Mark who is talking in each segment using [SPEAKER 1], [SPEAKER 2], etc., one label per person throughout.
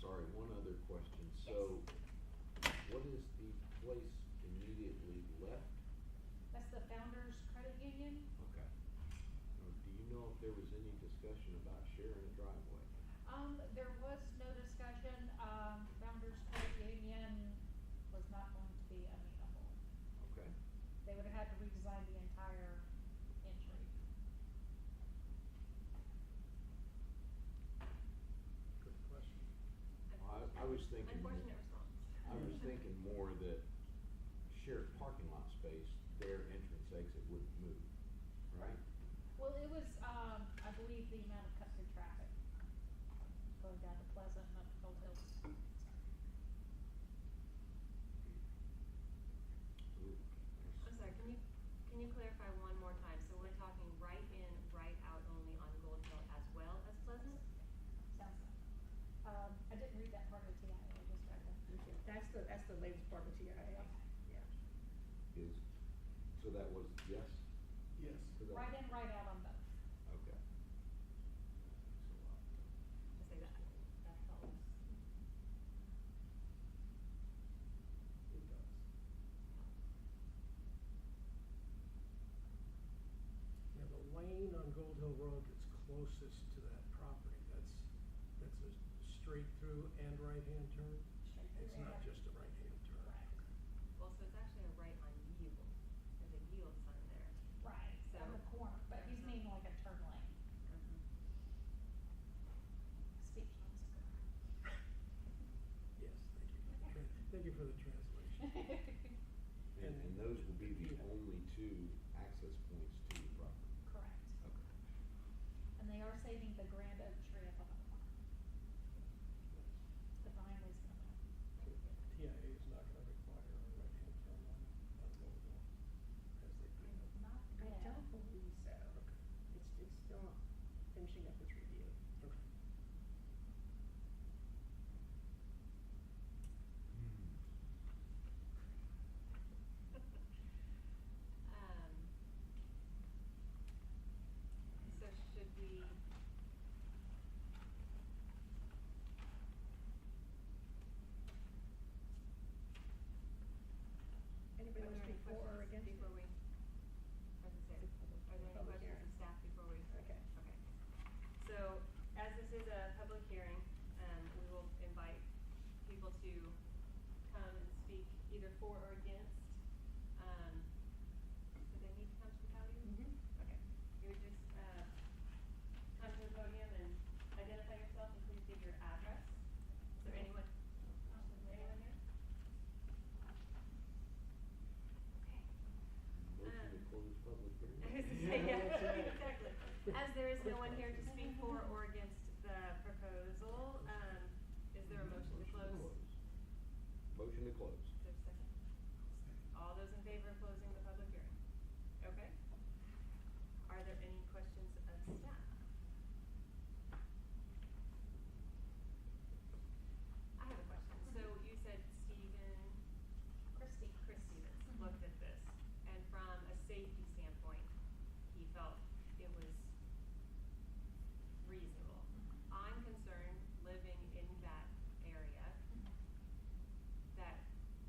[SPEAKER 1] sorry, one other question. So what is the place immediately left?
[SPEAKER 2] That's the Founders Credit Union.
[SPEAKER 1] Okay. Now, Do you know if there was any discussion about sharing a driveway?
[SPEAKER 2] Um, there was no discussion, um, Founders Credit Union was not going to be amenable.
[SPEAKER 1] Okay.
[SPEAKER 2] They would have had to redesign the entire entry.
[SPEAKER 3] Good question.
[SPEAKER 1] I, I was thinking. more-
[SPEAKER 4] Unfortunate response.
[SPEAKER 1] I was thinking more that shared parking lot space, their entrance exit wouldn't move, right?
[SPEAKER 2] Well, it was, um, I believe the amount of cut-through traffic going down to Pleasant and up to Gold Hills.
[SPEAKER 1] Ooh, there's-
[SPEAKER 4] I'm sorry, can you, can you clarify one more time? So we're talking right in, right out only on Gold Hill as well as Pleasant?
[SPEAKER 2] Sounds like. Um, I didn't read that part of the TIA, I just read the.
[SPEAKER 5] Okay, That's the, that's the latest part of TIA, yeah.
[SPEAKER 1] Is, so that was yes
[SPEAKER 3] Yes.
[SPEAKER 1] to that?
[SPEAKER 2] Right in, right out on both.
[SPEAKER 1] Okay.
[SPEAKER 4] Just say that, that helps.
[SPEAKER 1] It does.
[SPEAKER 3] Now, the lane on Gold Hill Road that's closest to that property, that's, that's a straight through and right-hand turn?
[SPEAKER 2] Straight through
[SPEAKER 3] It's not
[SPEAKER 2] and-
[SPEAKER 3] just a right-hand turn?
[SPEAKER 2] Right.
[SPEAKER 4] Well, so it's actually a right on yield. There's a yield sign there.
[SPEAKER 2] Right, on the
[SPEAKER 4] So-
[SPEAKER 2] corner, but he's meaning like a turn lane. Speaking.
[SPEAKER 3] Yes, thank you. Thank you for the translation.
[SPEAKER 1] And, and those will be the only two access points to the property?
[SPEAKER 2] Correct.
[SPEAKER 1] Okay.
[SPEAKER 2] And they are saving the grand oak tree up on the corner.
[SPEAKER 4] Hmm.
[SPEAKER 2] The vine is gonna move.
[SPEAKER 3] TIA is not gonna require a right-hand turn on, on Gold Hill, as they clean up.
[SPEAKER 2] Not
[SPEAKER 5] I
[SPEAKER 2] yet.
[SPEAKER 5] don't believe so.
[SPEAKER 3] Okay.
[SPEAKER 5] It's, it's still finishing up its review.
[SPEAKER 3] Okay.
[SPEAKER 4] Um, So should we? Are
[SPEAKER 5] Anybody want to
[SPEAKER 4] there any
[SPEAKER 5] speak for or
[SPEAKER 4] questions
[SPEAKER 5] against?
[SPEAKER 4] Before
[SPEAKER 5] it?
[SPEAKER 4] we, as I said, are there any
[SPEAKER 5] Public
[SPEAKER 4] questions
[SPEAKER 5] hearing.
[SPEAKER 4] of staff before we?
[SPEAKER 5] Okay.
[SPEAKER 4] Okay. So as this is a public hearing, um, we will invite people to come and speak either for or against. Um, do they need to come to the podium? Okay. You would just, uh, come to the podium and identify yourself and please give your address. Is there anyone, anyone here? Okay.
[SPEAKER 1] Motion to close public hearing?
[SPEAKER 4] I was gonna say, yeah,
[SPEAKER 3] Yeah, that's right.
[SPEAKER 4] exactly. As there is no one here to speak for or against the proposal, um, is there a motion to close? Is
[SPEAKER 1] Motion to close.
[SPEAKER 4] there a second? All those in favor of closing the public hearing? Okay. Are there any questions of staff? I have a question. So you said Stephen
[SPEAKER 2] Christie.
[SPEAKER 4] Christie that's looked at this, and from a safety standpoint, he felt it was reasonable. I'm concerned, living in that area, that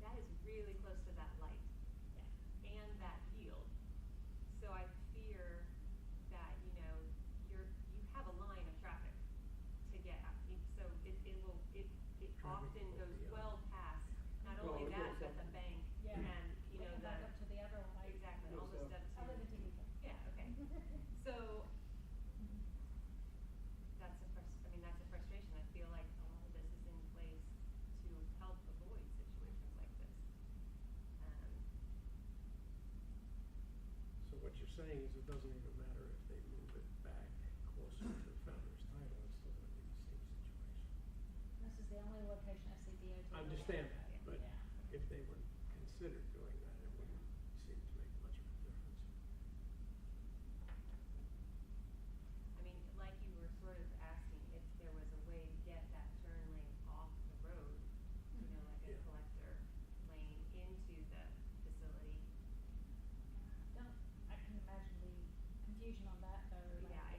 [SPEAKER 4] that is really close to that light
[SPEAKER 2] Yeah.
[SPEAKER 4] and that yield. So I fear that, you know, you're, you have a line of traffic to get out. It- So it, it will, it, it
[SPEAKER 3] Traffic
[SPEAKER 4] often
[SPEAKER 3] will
[SPEAKER 4] goes
[SPEAKER 3] be out.
[SPEAKER 4] well past, not
[SPEAKER 6] Well, it
[SPEAKER 4] only that,
[SPEAKER 6] goes
[SPEAKER 4] but
[SPEAKER 6] up.
[SPEAKER 4] the bank
[SPEAKER 2] Yeah.
[SPEAKER 4] and, you
[SPEAKER 2] We
[SPEAKER 4] know,
[SPEAKER 2] can back up to
[SPEAKER 4] the,
[SPEAKER 2] the other one. I-
[SPEAKER 4] exactly,
[SPEAKER 6] Goes
[SPEAKER 4] almost
[SPEAKER 6] up.
[SPEAKER 2] I
[SPEAKER 4] up
[SPEAKER 2] live in
[SPEAKER 4] to.
[SPEAKER 2] TV.
[SPEAKER 4] Yeah, okay.
[SPEAKER 2] Mhm.
[SPEAKER 4] So that's a frus- I mean, that's a frustration. I feel like a lot of this is in place to help avoid situations like this. Um,
[SPEAKER 3] So what you're saying is it doesn't even matter if they move it back closer to the founder's title, it's still gonna be the same situation.
[SPEAKER 2] This is the only location I see DOT.
[SPEAKER 3] I understand that,
[SPEAKER 2] building.
[SPEAKER 3] but
[SPEAKER 2] Yeah.
[SPEAKER 3] if they were considered